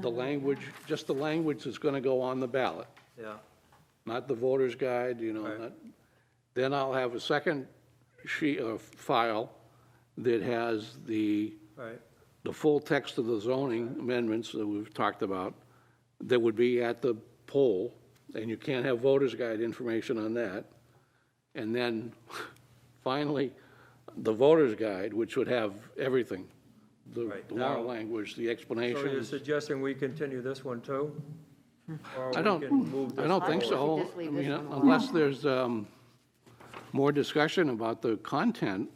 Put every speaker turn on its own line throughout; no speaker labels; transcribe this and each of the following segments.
the language, just the language that's going to go on the ballot,
Yeah,
not the voter's guide, you know,
Right.
not, then I'll have a second sheet, uh, file that has the
right,
the full text of the zoning amendments that we've talked about, that would be at the poll, and you can't have voter's guide information on that. And then, finally, the voter's guide, which would have everything, the
Right,
the warrant
now-
language, the
so you're
explanations.
suggesting we continue this one too? Or
Hmm. I
we
don't,
can move
I
this
don't think
forward?
so.
We should just leave
I mean,
this one alone.
Unless there's um, more discussion about the content,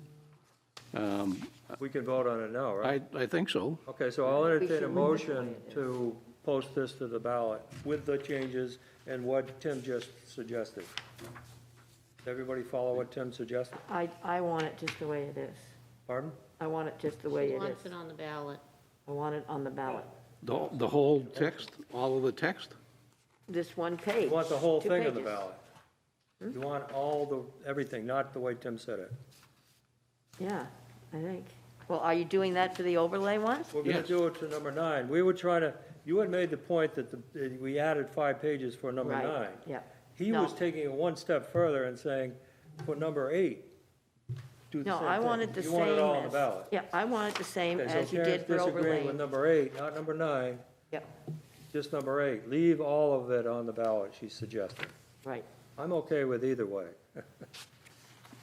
We can vote on it now, right?
I, I think so.
Okay, so I'll entertain
should
a
leave it the way
motion to post this to the ballot with the changes and what Tim just suggested. Does everybody follow what Tim suggested?
I, I want it just the way it is.
Pardon?
I want it just the way
She
it
wants it
is.
on the ballot.
I want it on the ballot.
The, the whole text, all of the text?
This one page.
You want the whole
two
thing on the
pages. Hmm?
ballot? You want all the, everything, not the way Tim said it.
Yeah, I think. Well, are you doing that for the overlay ones?
We're gonna
Yes.
do it to number nine. We were trying to, you had made the point that the, that we added five pages for number
Right,
nine.
yeah.
He was
No.
taking it one step further and saying, for number eight, do the
No,
same thing.
I wanted the same as.
You want it all on the ballot.
Yeah, I want it the same
Okay,
as
so
you did
Karen's
for
disagreeing with
overlay.
number eight, not number nine,
Yep,
just number eight. Leave all of it on the ballot, she suggested.
right.
I'm okay with either way.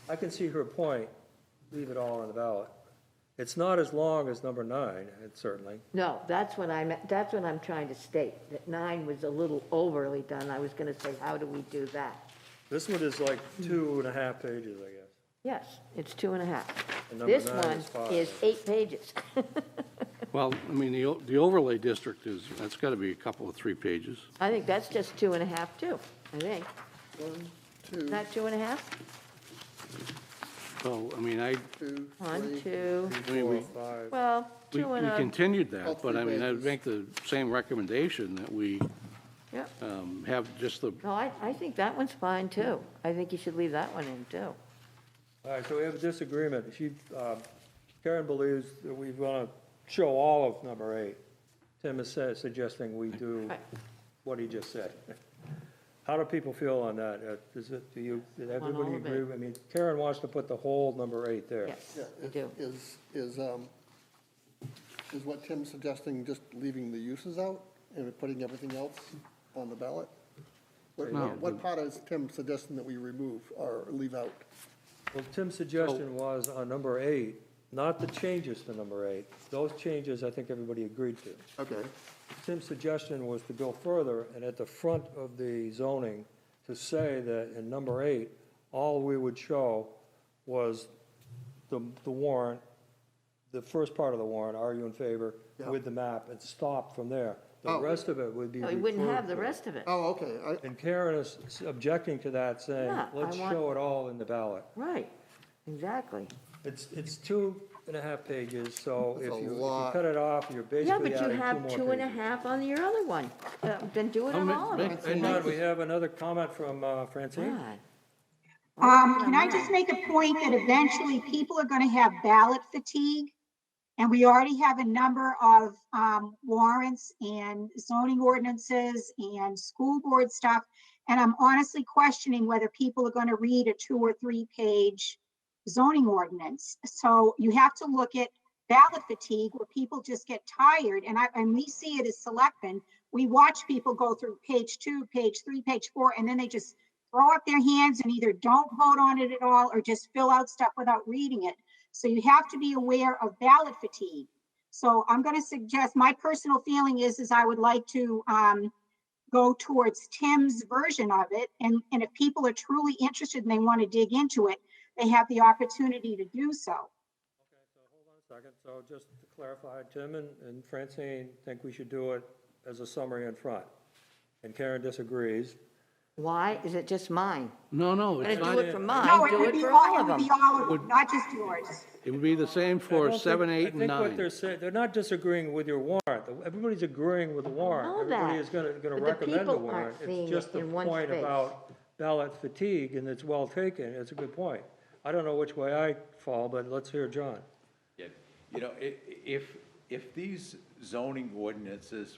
I can see her point, leave it all on the ballot. It's not as long as number nine, it certainly.
No, that's what I'm, that's what I'm trying to state, that nine was a little overly done. I was going to say, how do we do that?
This one is like two and a half pages, I guess.
Yes, it's two and a half.
And number
This
nine
one
is five.
is eight pages.
Well, I mean, the, o- the overlay district is, that's got to be a couple of three pages.
I think that's just two and a half, too, I think.
One, two,
Not two and a half?
So, I mean, I,
two,
One,
three.
two,
I mean, we,
Five.
well,
we
two and
we
a,
continued that,
All
but I
three
mean, I'd
pages.
make the same recommendation that we
yep.
um, have just the,
No, I, I think that one's fine, too. I think you should leave that one in, too.
All right, so we have a disagreement. She, um, Karen believes that we want to show all of number eight. Tim is sa- suggesting we do
Right.
what he just said. How do people feel on that? Uh, Is it, do you, did everybody
all of it.
agree? I mean, Karen wants to put the whole number eight there.
Yes,
Yeah,
you do.
Is, is, um, is what Tim's suggesting, just leaving the uses out and putting everything else on the ballot? What,
No.
what part is Tim suggesting that we remove or leave out?
Well, Tim's suggestion was on number eight, not the changes to number eight. Those changes, I think everybody agreed to.
Okay.
Tim's suggestion was to go further and at the front of the zoning to say that in number eight, all we would show was the, the warrant, the first part of the warrant, are you in favor
Yeah.
with the map and stop from there. The
Oh.
rest of it would be
No, You wouldn't
referred
have the
to.
rest of it.
Oh, okay, I,
And Karen is objecting to that saying,
Yeah, I
let's
want-
show it all in the ballot.
Right, exactly.
It's, it's two and a half pages, so if
That's a
you, if you
lot.
cut it off, you're
Yeah,
basically
but you
adding two more
have
pages.
two and a half on your other one. Uh, Then do it
Oh,
on
ma-
all of
ma-
them.
Hang on, we have another comment from uh, Francine.
God.
Um, can I just make a point that eventually people are gonna have ballot fatigue? And we already have a number of, um, warrants and zoning ordinances and school board stuff. And I'm honestly questioning whether people are gonna read a two or three page zoning ordinance. So you have to look at ballot fatigue where people just get tired and I, and we see it as selectmen. We watch people go through page two, page three, page four, and then they just throw up their hands and either don't vote on it at all or just fill out stuff without reading it. So you have to be aware of ballot fatigue. So I'm going to suggest, my personal feeling is, is I would like to um, go towards Tim's version of it. And, and if people are truly interested and they want to dig into it, they have the opportunity to do so.
Hold on a second, so just to clarify, Tim and- and Francine think we should do it as a summary in front. And Karen disagrees.
Why? Is it just mine?
no, no,
I'm
it's
gonna do
not,
it for
No,
mine,
it
do
would
it
be
for
all,
all
it
of
would be
them.
all of them, not just yours.
it would be the same
I don't
for
think-
seven, eight, and
I think what they're
nine.
saying, they're not disagreeing with your warrant. Everybody's agreeing with the warrant.
know
Everybody
that,
is going to, going
but
to
the
recommend the
people aren't
warrant.
seeing
It's
it
just the
in one
point
space.
about ballot fatigue, and it's well taken. It's a good point. I don't know which way I fall, but let's hear John.
Yeah, you know, i- i- if, if these zoning ordinances